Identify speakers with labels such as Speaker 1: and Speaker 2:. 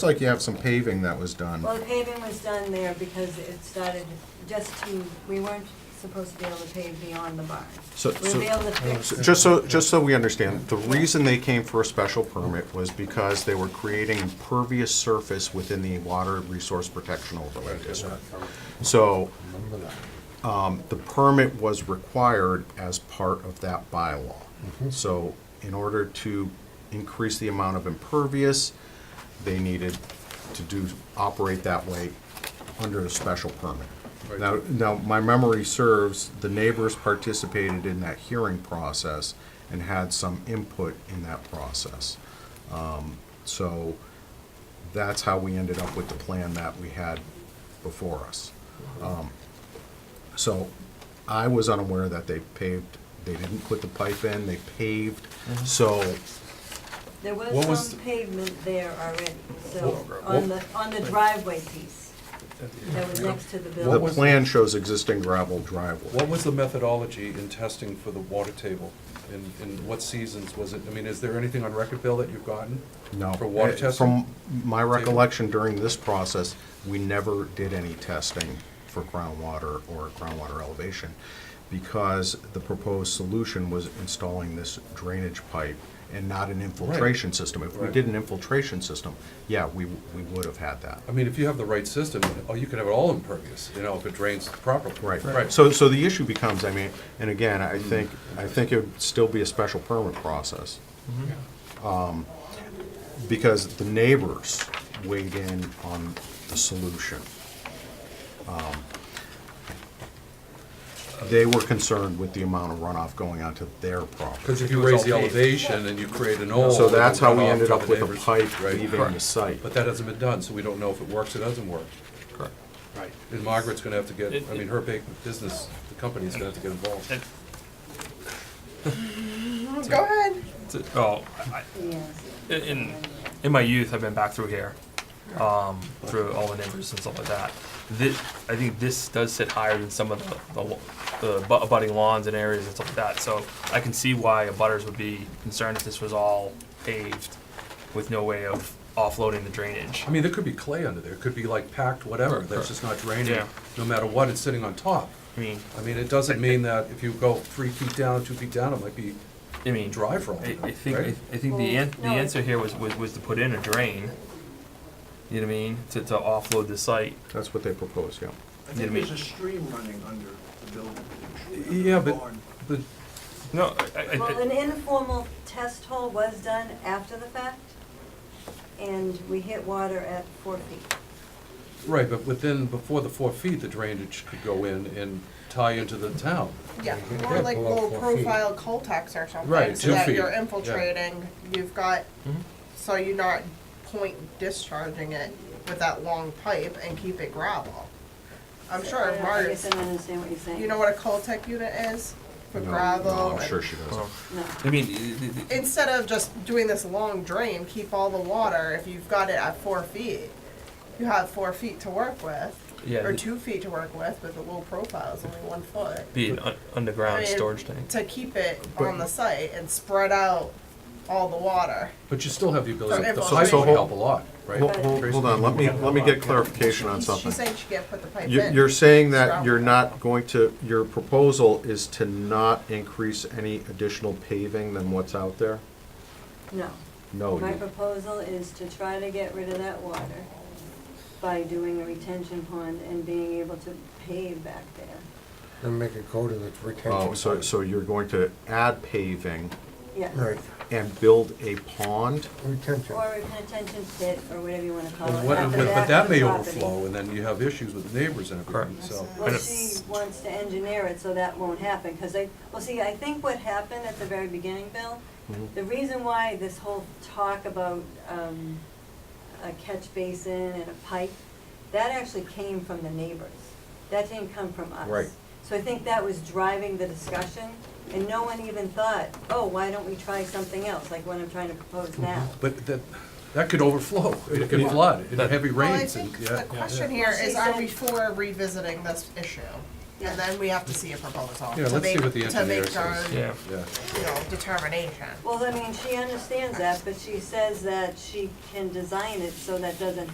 Speaker 1: Looks like you have some paving that was done.
Speaker 2: Well, the paving was done there because it started just to, we weren't supposed to be able to pave beyond the barn.
Speaker 1: So-
Speaker 2: We
Speaker 1: so- uh,
Speaker 2: were able to fix,
Speaker 1: So- Just so, just so we understand, the reason they came for a special permit was because they were creating impervious surface within the Water Resource Protection Overlay District. So, um, the permit was required as part of that bylaw. So, in order to increase the amount of impervious, they needed to do, operate that way under a special permit. Now, now, my memory serves, the neighbors participated in that hearing process and had some input in that process. Um, So that's how we ended up with the plan that we had before us. Um, So I was unaware that they paved, they didn't put the pipe in, they paved, so
Speaker 2: there
Speaker 3: What
Speaker 2: was
Speaker 3: was
Speaker 2: some
Speaker 3: the-
Speaker 2: pavement there already, so,
Speaker 3: What-
Speaker 2: on the,
Speaker 3: what-
Speaker 2: on the driveway piece that was next to
Speaker 1: the
Speaker 2: the
Speaker 3: What
Speaker 2: building.
Speaker 3: was-
Speaker 1: plan shows existing gravel driveway.
Speaker 3: What was the methodology in testing for the water table? And, and what seasons was it? I mean, is there anything on record, Bill, that you've gotten?
Speaker 1: No.
Speaker 3: For water
Speaker 1: Uh,
Speaker 3: testing?
Speaker 1: From my recollection during this process, we never did any testing for groundwater or groundwater elevation because the proposed solution was installing this drainage pipe and not an infiltration system. If we
Speaker 3: Right.
Speaker 1: did an infiltration system, yeah, we, we would have had that.
Speaker 3: I mean, if you have the right system, oh, you could have it all impervious, you know, if it drains properly.
Speaker 1: Right,
Speaker 3: Right.
Speaker 1: so, so the issue becomes, I mean, and again, I think, I think it would still be a special permit process. Um, Because the neighbors weighed in on the solution. Um, They were concerned with the amount of runoff going onto their property.
Speaker 3: Because if you
Speaker 4: It was
Speaker 3: raise the
Speaker 4: all paved.
Speaker 3: elevation and you create an old.
Speaker 1: So that's how we
Speaker 3: Oh, runoff
Speaker 1: ended
Speaker 3: to
Speaker 1: up
Speaker 3: the
Speaker 1: with a
Speaker 3: neighbors,
Speaker 1: pipe
Speaker 3: right?
Speaker 1: leaving the site.
Speaker 3: But that hasn't been done, so we don't know if it works or doesn't work.
Speaker 1: Correct.
Speaker 4: Right.
Speaker 3: And Margaret's gonna have to get,
Speaker 4: It-
Speaker 3: I mean, her big business, the company's gonna have to get involved.
Speaker 4: It-
Speaker 5: Go ahead.
Speaker 4: T- Oh, I,
Speaker 2: Yes.
Speaker 4: I- in in my youth, I've been back through here, um, through all the neighbors and stuff like that. This, I think this does sit higher than some of the, the, lo- the bu- abutting lawns and areas and stuff like that. So I can see why abutters would be concerned if this was all paved with no way of offloading the drainage.
Speaker 3: I mean, there could be clay under there, it could be like packed whatever, that's just not draining,
Speaker 4: Yeah.
Speaker 3: no matter what, it's sitting on top.
Speaker 4: I mean,
Speaker 3: I mean, it doesn't mean that if you go three feet down, two feet down, it might be
Speaker 4: I mean,
Speaker 3: dry for all
Speaker 4: I,
Speaker 3: you know,
Speaker 4: I think
Speaker 3: right?
Speaker 4: I, I think the an- the
Speaker 2: Well, no.
Speaker 4: answer here was, was was to put in a drain. You know what I mean? To to offload the site.
Speaker 1: That's what they proposed, yeah.
Speaker 6: I
Speaker 4: Yeah, I
Speaker 6: think
Speaker 4: mean-
Speaker 6: there's a stream running under the building. under
Speaker 3: Yeah,
Speaker 6: the
Speaker 3: but-
Speaker 6: barn.
Speaker 3: But
Speaker 4: No, I, I,
Speaker 2: Well,
Speaker 4: I,
Speaker 2: an informal test hole was done after the fact, and we hit water at four feet.
Speaker 3: Right, but within, before the four feet, the drainage could go in and tie into the town.
Speaker 5: Yeah, more like
Speaker 3: below
Speaker 5: low
Speaker 3: four
Speaker 5: profile Coltex or something.
Speaker 3: Right,
Speaker 5: So
Speaker 3: two
Speaker 5: that
Speaker 3: feet,
Speaker 5: you're
Speaker 3: yeah.
Speaker 5: infiltrating, you've got,
Speaker 4: Mhm.
Speaker 5: so you're not point discharging it with that long pipe and keep it gravel. I'm sure
Speaker 2: uh, I don't- I guess
Speaker 5: Margaret's,
Speaker 2: I don't understand what you're saying.
Speaker 5: you know what a Coltech unit is for
Speaker 1: No, no,
Speaker 5: gravel?
Speaker 1: I'm sure she does.
Speaker 3: Oh,
Speaker 2: No.
Speaker 4: well, I mean, i- i- i-
Speaker 5: Instead of just doing this long drain, keep all the water, if you've got it at four feet, you have four feet to work with.
Speaker 4: Yeah,
Speaker 5: Or
Speaker 4: the-
Speaker 5: two feet to work with, but the low profile is only one foot.
Speaker 4: be an un- underground
Speaker 5: I mean,
Speaker 4: storage tank.
Speaker 5: to keep it on the site and spread out all the water.
Speaker 3: But you still have the ability,
Speaker 5: So
Speaker 3: the
Speaker 5: if-
Speaker 3: pipe
Speaker 5: So
Speaker 3: would
Speaker 1: hold-
Speaker 3: help a lot, right?
Speaker 1: Hold, hold- hold on, let me, let me get clarification on
Speaker 5: She's
Speaker 1: something.
Speaker 5: saying she can't put the pipe
Speaker 1: You-
Speaker 5: in.
Speaker 1: You're saying that
Speaker 5: Surround
Speaker 1: you're
Speaker 5: it.
Speaker 1: not going to, your proposal is to not increase any additional paving than what's out there?
Speaker 2: No.
Speaker 1: No,
Speaker 2: My
Speaker 1: you-
Speaker 2: proposal is to try to get rid of that water by doing a retention pond and being able to pave back there.
Speaker 7: And make a coat of it for retention.
Speaker 1: Oh, so, so you're going to add paving
Speaker 2: Yes.
Speaker 7: Right,
Speaker 1: and build a pond?
Speaker 7: retention.
Speaker 2: Or a retention pit, or whatever you wanna call it.
Speaker 3: And what-
Speaker 2: at
Speaker 3: and
Speaker 2: the
Speaker 3: But
Speaker 2: back
Speaker 3: but
Speaker 2: of
Speaker 3: that
Speaker 2: the
Speaker 3: may
Speaker 2: property.
Speaker 3: overflow, and then you have issues with neighbors and everything,
Speaker 4: Correct.
Speaker 3: so.
Speaker 2: Well,
Speaker 4: Kind of
Speaker 2: she
Speaker 4: s-
Speaker 2: wants to engineer it so that won't happen, because they, well, see, I think what happened at the very beginning, Bill,
Speaker 4: Mm-hmm.
Speaker 2: the reason why this whole talk about, um, a catch basin and a pipe, that actually came from the neighbors. That didn't come from us.
Speaker 3: Right.
Speaker 2: So I think that was driving the discussion, and no one even thought, oh, why don't we try something else, like what I'm trying to propose now?
Speaker 4: Mm-hmm.
Speaker 3: But that, that could overflow, it could flood, in heavy
Speaker 5: Well, I
Speaker 3: rains, and,
Speaker 5: think
Speaker 3: yeah.
Speaker 5: the question
Speaker 3: yeah.
Speaker 5: here
Speaker 2: Well, she
Speaker 5: is, are
Speaker 2: said-
Speaker 5: we for revisiting this issue? And then we have to see a proposal.
Speaker 3: Yeah,
Speaker 5: to
Speaker 3: let's see
Speaker 5: make-
Speaker 3: what the
Speaker 5: to
Speaker 3: engineer
Speaker 5: make
Speaker 3: says.
Speaker 5: our,
Speaker 4: Yeah.
Speaker 3: Yeah.
Speaker 5: You know, determination.
Speaker 2: Well, I mean, she understands that, but she says that she can design it so that doesn't